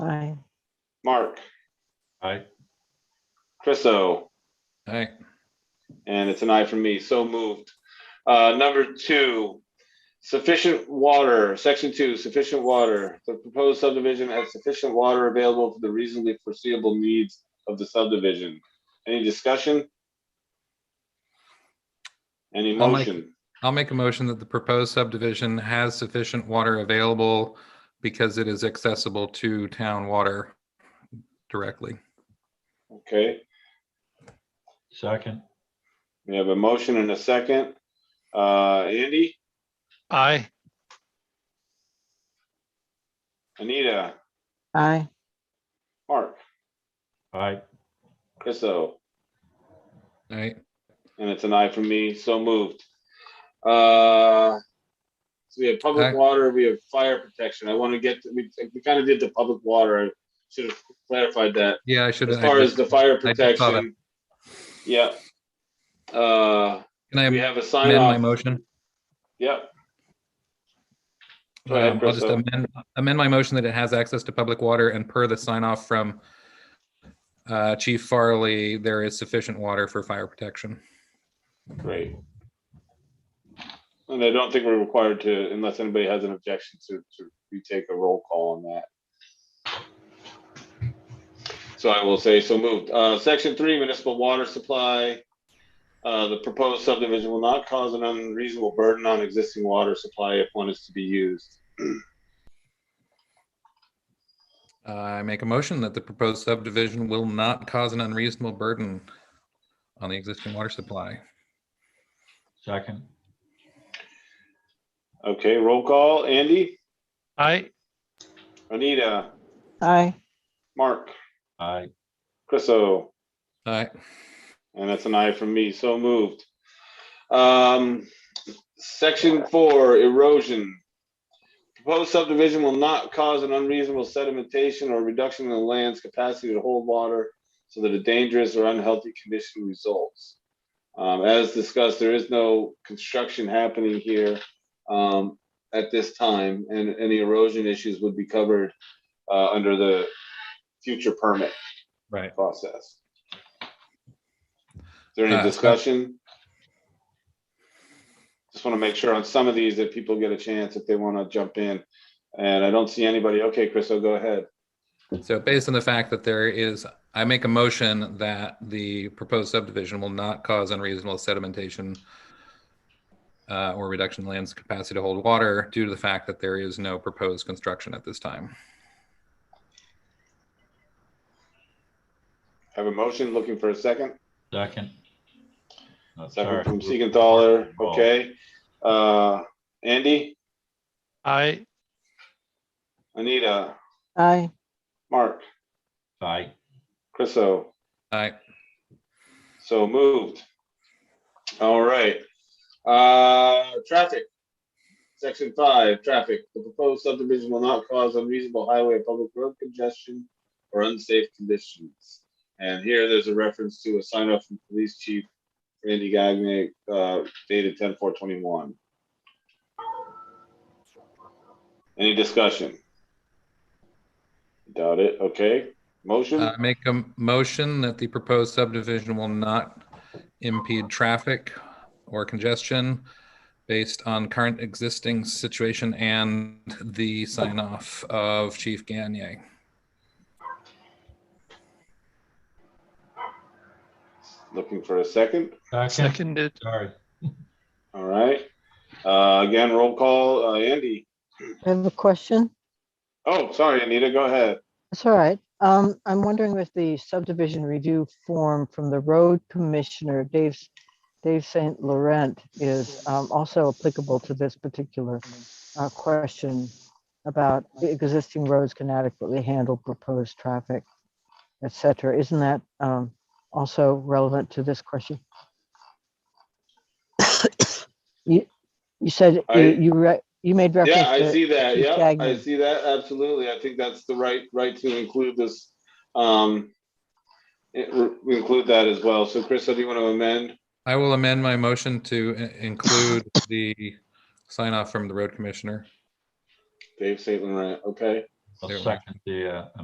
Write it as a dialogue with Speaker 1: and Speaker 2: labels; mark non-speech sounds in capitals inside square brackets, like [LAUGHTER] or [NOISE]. Speaker 1: Mark,
Speaker 2: Aye.
Speaker 1: Chriso,
Speaker 2: Aye.
Speaker 1: and it's an aye from me, so moved. Uh, number two, sufficient water, section two, sufficient water. The proposed subdivision has sufficient water available for the reasonably foreseeable needs of the subdivision. Any discussion? Any
Speaker 2: I'll make-
Speaker 1: motion?
Speaker 2: I'll make a motion that the proposed subdivision has sufficient water available because it is accessible to town water directly.
Speaker 1: Okay,
Speaker 3: Second,
Speaker 1: we have a motion and a second. Uh, Andy,
Speaker 4: Aye.
Speaker 1: Anita,
Speaker 5: aye,
Speaker 1: Mark,
Speaker 3: aye,
Speaker 1: Chriso.
Speaker 2: Aye.
Speaker 1: And it's an aye from me, so moved. Uh, So we have public
Speaker 2: Aye.
Speaker 1: water, we have fire protection. I want to get, we, we kind of did the public water. I Should have clarified that
Speaker 2: Yeah, I should.
Speaker 1: as
Speaker 2: I
Speaker 1: far as
Speaker 2: just-
Speaker 1: the fire
Speaker 2: I just saw that.
Speaker 1: protection. Yeah. Uh,
Speaker 2: Can I
Speaker 1: we
Speaker 2: amend
Speaker 1: have a sign
Speaker 2: my
Speaker 1: off.
Speaker 2: motion?
Speaker 1: Yep, Go ahead,
Speaker 2: Um, I'll just
Speaker 1: Christo.
Speaker 2: amend, amend my motion that it has access to public water and per the sign off from uh, Chief Farley, there is sufficient water for fire protection.
Speaker 1: great. And I don't think we're required to, unless anybody has an objection to, to retake a roll call on that. So I will say so moved. Uh, section three, municipal water supply. Uh, the proposed subdivision will not cause an unreasonable burden on existing water supply if one is to be used.
Speaker 2: I make a motion that the proposed subdivision will not cause an unreasonable burden on the existing water supply.
Speaker 3: second,
Speaker 1: Okay, roll call. Andy,
Speaker 4: Aye.
Speaker 1: Anita,
Speaker 5: aye,
Speaker 1: Mark,
Speaker 3: aye,
Speaker 1: Chriso.
Speaker 2: Aye.
Speaker 1: And that's an aye from me, so moved. Um, section four, erosion. Proposed subdivision will not cause an unreasonable sedimentation or reduction in the land's capacity to hold water so that a dangerous or unhealthy condition results. Um, as discussed, there is no construction happening here, um, at this time, and any erosion issues would be covered, uh, under the future permit
Speaker 2: Right.
Speaker 1: process. Is there any
Speaker 2: Uh, so-
Speaker 1: discussion? Just want to make sure on some of these that people get a chance if they want to jump in. And I don't see anybody. Okay, Chris, I'll go ahead.
Speaker 2: So based on the fact that there is, I make a motion that the proposed subdivision will not cause unreasonable sedimentation uh, or reduction in land's capacity to hold water due to the fact that there is no proposed construction at this time.
Speaker 1: Have a motion, looking for a second.
Speaker 3: second. No,
Speaker 1: Second
Speaker 3: sorry.
Speaker 1: from Siegenthaler.
Speaker 3: Oh.
Speaker 1: Okay. Uh, Andy,
Speaker 4: Aye.
Speaker 1: Anita,
Speaker 5: aye,
Speaker 1: Mark,
Speaker 3: Aye,
Speaker 1: Chriso.
Speaker 2: Aye.
Speaker 1: So moved. All right. Uh, traffic. Section five, traffic. The proposed subdivision will not cause unreasonable highway or public road congestion or unsafe conditions. And here, there's a reference to a sign up from Police Chief Randy Gagne, uh, dated ten four twenty-one. Any discussion? Doubt it. Okay. Motion?
Speaker 2: I uh, make a motion that the proposed subdivision will not impede traffic or congestion based on current existing situation and the sign off of Chief Gagne.
Speaker 1: Looking for a second?
Speaker 3: second,
Speaker 4: Seconded.
Speaker 3: sorry,
Speaker 1: All right. Uh, again, roll call, uh, Andy.
Speaker 5: I have a question,
Speaker 1: Oh, sorry, Anita, go ahead.
Speaker 5: it's all right. Um, I'm wondering if the subdivision review form from the road commissioner, Dave, Dave St. Laurent is um, also applicable to this particular uh, question about the existing roads can adequately handle proposed traffic, et cetera. Isn't that um, also relevant to this
Speaker 1: [COUGHS]
Speaker 5: question? You, you said,
Speaker 1: I-
Speaker 5: you, you re- you made reference to.
Speaker 1: Yeah, I see that.
Speaker 5: Keith
Speaker 1: Yeah, I
Speaker 5: Gagnon.
Speaker 1: see that. Absolutely. I think that's the right, right to include this. Um, it- we include that as well. So Chris, do you want to amend?
Speaker 2: I will amend my motion to i- include the sign off from the road commissioner.
Speaker 1: Dave St. Laurent, okay?
Speaker 3: I'll
Speaker 2: There we go.
Speaker 3: second the, uh,